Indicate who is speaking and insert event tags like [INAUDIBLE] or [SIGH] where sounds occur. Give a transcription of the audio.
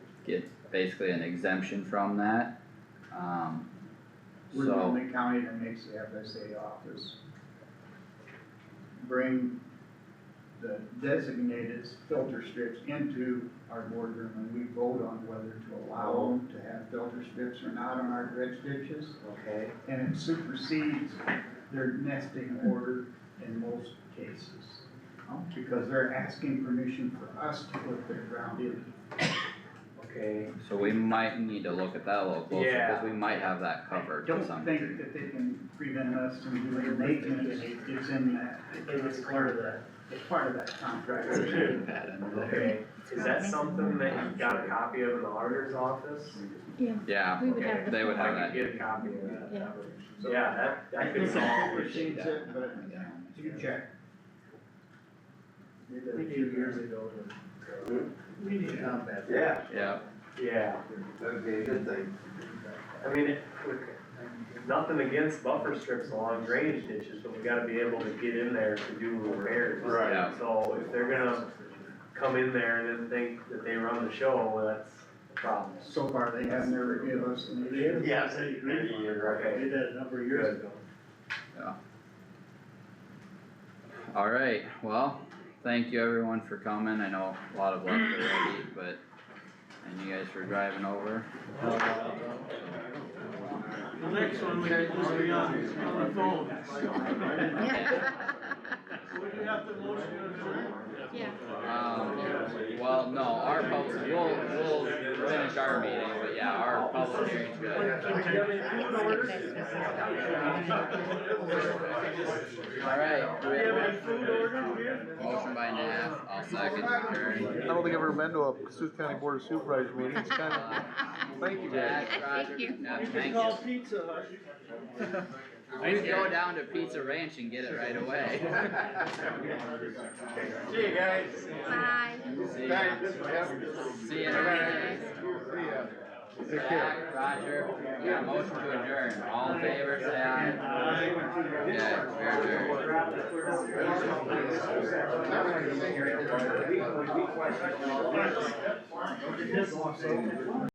Speaker 1: it's basically an exemption from that. Um,
Speaker 2: We're the
Speaker 1: so,
Speaker 2: only county that makes the FSA office. Bring the designated filter strips into our boardroom and we vote on whether to allow them to have filter strips or not on our dredge ditches.
Speaker 3: Okay,
Speaker 2: And it supersedes their nesting order in most cases. um, Because they're asking permission for us to put their ground in.
Speaker 3: okay,
Speaker 1: so we might need to look at that a little closer, cause
Speaker 3: Yeah.
Speaker 1: we might have that covered to some
Speaker 2: Don't
Speaker 1: degree.
Speaker 2: [LAUGHS] think that they can prevent us from doing it, they can, it's in that.
Speaker 3: it was part of that.
Speaker 2: It's part of that contract.
Speaker 1: That in there.
Speaker 3: Okay, is that something that you got a copy of in the auditor's office?
Speaker 1: Yeah,
Speaker 4: We would have the.
Speaker 1: they would
Speaker 3: I
Speaker 1: have
Speaker 3: could
Speaker 1: that,
Speaker 3: get a copy of that.
Speaker 4: Yeah.
Speaker 3: So, yeah, that, that could
Speaker 2: It's a
Speaker 3: solve
Speaker 2: paper
Speaker 3: it.
Speaker 2: sheet, it, but you check.
Speaker 5: Did that a few years ago. We need to not that.
Speaker 6: Yeah,
Speaker 1: yeah,
Speaker 3: Yeah,
Speaker 6: that'd be a good thing.
Speaker 3: I mean, it, nothing against buffer strips along drainage ditches, but we gotta be able to get in there to do repairs.
Speaker 6: Right.
Speaker 1: Yeah.
Speaker 3: So if they're gonna come in there and then think that they run the show, well, that's a problem.
Speaker 2: So far, they have never given us an issue.
Speaker 6: Yeah.
Speaker 3: Okay.
Speaker 5: They did a number of years ago.
Speaker 1: alright, well, thank you everyone for coming, I know a lot of luck already, but, and you guys for driving over.
Speaker 7: The next one, we can just be on, on the phone. Would you have to motion to adjourn?
Speaker 4: Yeah.
Speaker 1: Um, well, no, our public, we'll, we'll finish our meeting, but yeah, our public hearing's good. Alright, do we
Speaker 7: Do you have
Speaker 1: have
Speaker 7: any food order here?
Speaker 1: a motion by Nat, I'll second
Speaker 8: I
Speaker 1: adjourn.
Speaker 8: don't think I've ever been to a Cassuth County Board of Supervisors meeting, it's kind of, thank you guys.
Speaker 1: Jack, Roger,
Speaker 4: Thank you.
Speaker 1: no,
Speaker 7: You
Speaker 1: thank
Speaker 7: can call
Speaker 1: you.
Speaker 7: Pizza Hut.
Speaker 1: We can go down to Pizza Ranch and get it right away.
Speaker 6: See you guys.
Speaker 4: Bye.
Speaker 1: See ya.
Speaker 6: Thanks, good to have you.
Speaker 1: See ya.
Speaker 6: See ya. Take care.
Speaker 1: Jack, Roger, we got a motion to adjourn, all in favor, say aye. Yeah, we are adjourned.
Speaker 6: Everybody's singing.